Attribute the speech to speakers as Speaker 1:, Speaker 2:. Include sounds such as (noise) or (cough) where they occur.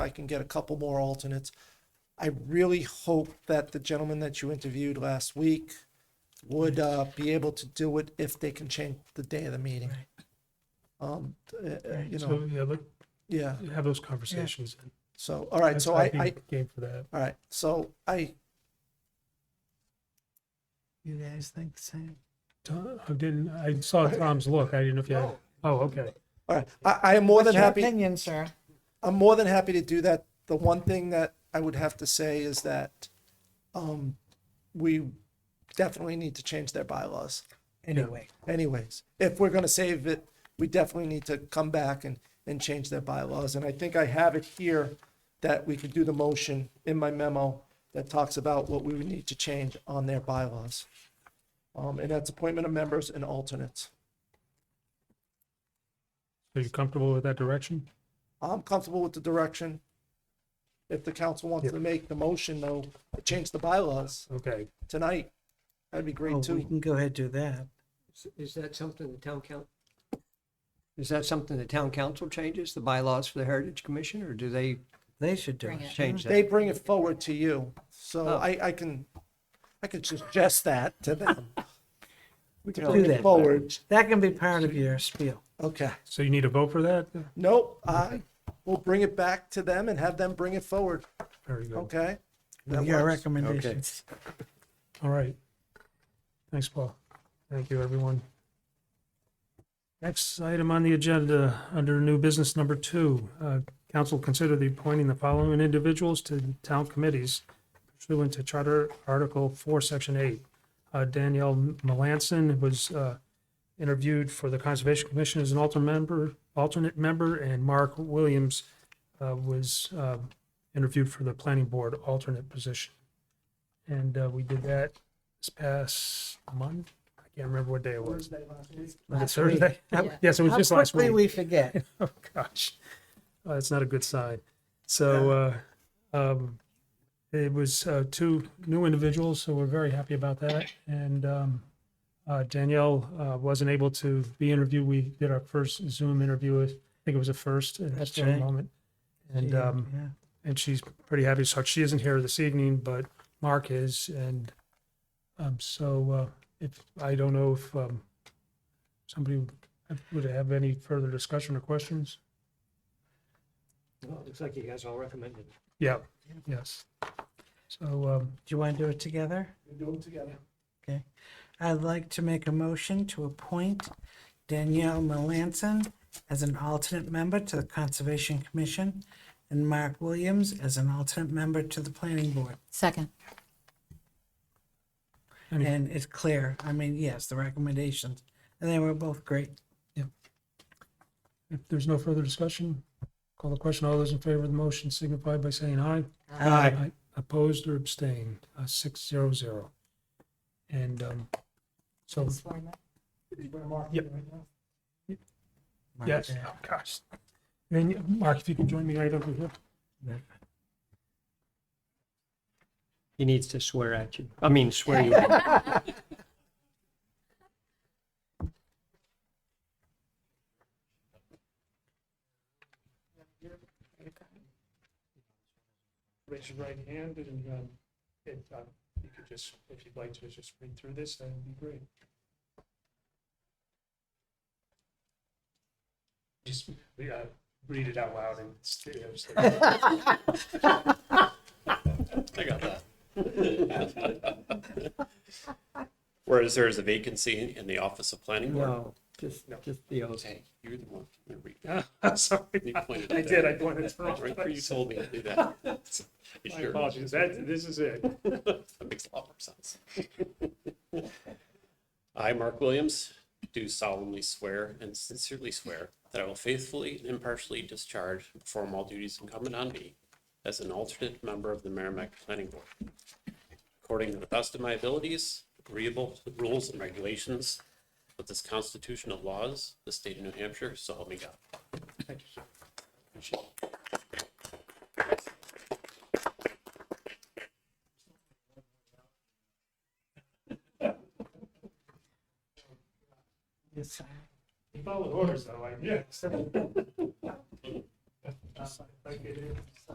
Speaker 1: I can get a couple more alternates. I really hope that the gentleman that you interviewed last week would uh, be able to do it if they can change the day of the meeting. Um, uh, uh, you know,
Speaker 2: So, yeah, look,
Speaker 1: yeah,
Speaker 2: have those conversations. and
Speaker 1: so, all right, so I,
Speaker 2: I'd be
Speaker 1: I,
Speaker 2: Game for that.
Speaker 1: all right, so I,
Speaker 3: You guys think the same?
Speaker 2: Tom, I didn't, I saw Tom's look. I didn't know if you had, oh, okay.
Speaker 1: all right, I, I am more than
Speaker 3: What's your
Speaker 1: happy.
Speaker 3: opinion, sir?
Speaker 1: I'm more than happy to do that. The one thing that I would have to say is that um, we definitely need to change their bylaws.
Speaker 3: Anyway,
Speaker 1: Anyways, if we're going to save it, we definitely need to come back and, and change their bylaws. And I think I have it here that we could do the motion in my memo that talks about what we would need to change on their bylaws. Um, and that's appointment of members and alternates.
Speaker 2: Are you comfortable with that direction?
Speaker 1: I'm comfortable with the direction. If the council wants to make the motion though, to change the bylaws
Speaker 2: Okay.
Speaker 1: tonight, that'd be
Speaker 3: oh,
Speaker 1: great
Speaker 3: we
Speaker 1: too.
Speaker 3: can go ahead and do that.
Speaker 4: Is- Is that something the town council? Is that something the town council changes, the bylaws for the Heritage Commission, or do they
Speaker 3: They should do it.
Speaker 4: change
Speaker 1: They
Speaker 4: that?
Speaker 1: bring it forward to you, so
Speaker 4: Oh.
Speaker 1: I, I can, I could suggest that to them. We can
Speaker 3: Do
Speaker 1: bring it
Speaker 3: that.
Speaker 1: forward.
Speaker 3: That can be part of your spiel.
Speaker 1: Okay,
Speaker 2: So you need a vote for that?
Speaker 1: nope, I will bring it back to them and have them bring it forward,
Speaker 2: Very good.
Speaker 1: okay? That
Speaker 3: Your
Speaker 1: works.
Speaker 3: recommendations.
Speaker 2: All right. Thanks, Paul. Thank you, everyone. Next item on the agenda, under new business number two, uh, council consider the appointing the following individuals to town committees pursuant to Charter Article Four, Section Eight. Uh, Danielle Melanson was, uh, interviewed for the Conservation Commission as an alternate member, alternate member, and Mark Williams, uh, was, uh, interviewed for the Planning Board alternate position. And, uh, we did that this past month. I can't remember what day it was. Was it
Speaker 3: Last week.
Speaker 2: Thursday? Yes, it was
Speaker 3: How
Speaker 2: just last
Speaker 3: quickly
Speaker 2: week.
Speaker 3: we forget.
Speaker 2: (laughs) Oh, gosh. Oh, that's not a good sign. So, uh, um, it was, uh, two new individuals, so we're very happy about that. And, um, uh, Danielle, uh, wasn't able to be interviewed. We did our first Zoom interview. with- I think it was the first at
Speaker 3: That's
Speaker 2: that
Speaker 3: right.
Speaker 2: moment. And, um,
Speaker 3: Yeah.
Speaker 2: and she's pretty happy. So she isn't here this evening, but Mark is, and um, so uh, if I don't know if um, somebody would- would have any further discussion or questions.
Speaker 4: Looks like you guys all recommended.
Speaker 2: Yeah. Yes. So um,
Speaker 3: Do you want to do it together?
Speaker 1: We do them together.
Speaker 3: Okay. I'd like to make a motion to appoint Danielle Melanson as an alternate member to the Conservation Commission and Mark Williams as an alternate member to the Planning Board.
Speaker 5: Second.
Speaker 2: Any-
Speaker 3: And it's clear, I mean, yes, the recommendations, and they were both great.
Speaker 2: if there's no further discussion, call the question. All those in favor of the motion signify by saying aye. Aye. Opposed or abstained, uh, six zero zero. And um, so, Yep. yes, oh, gosh. Then, Mark, if you can join me right over here.
Speaker 4: He needs to swear at you. I mean, (laughs) swear you. out.
Speaker 2: Raise your right hand and, um, if, um, you could just, if you'd like to, just read through this, that would be great. Just, uh, read it out loud and. I
Speaker 6: I got that. Whereas there is a vacancy in the office of planning board.
Speaker 4: No, just, just the oath.
Speaker 6: Hey, you're the one. I'm gonna read that.
Speaker 2: am sorry,
Speaker 6: (laughs) You pointed
Speaker 2: Ah. I
Speaker 6: at
Speaker 2: did,
Speaker 6: that.
Speaker 2: I pointed it wrong.
Speaker 6: Right where you told me to do that.
Speaker 2: (laughs)
Speaker 6: You
Speaker 2: My
Speaker 6: sure?
Speaker 2: apologies, that, this is it.
Speaker 6: That makes a lot more sense. (laughs) I, Mark Williams, do solemnly swear and sincerely swear that I will faithfully and impartially discharge and perform all duties incumbent on me as an alternate member of the Merrimack Planning Board, according to the best of my abilities, agreeable to the rules and regulations of this constitutional laws, the state of New Hampshire, so help me God. Appreciate it.
Speaker 2: You followed orders though, I guess.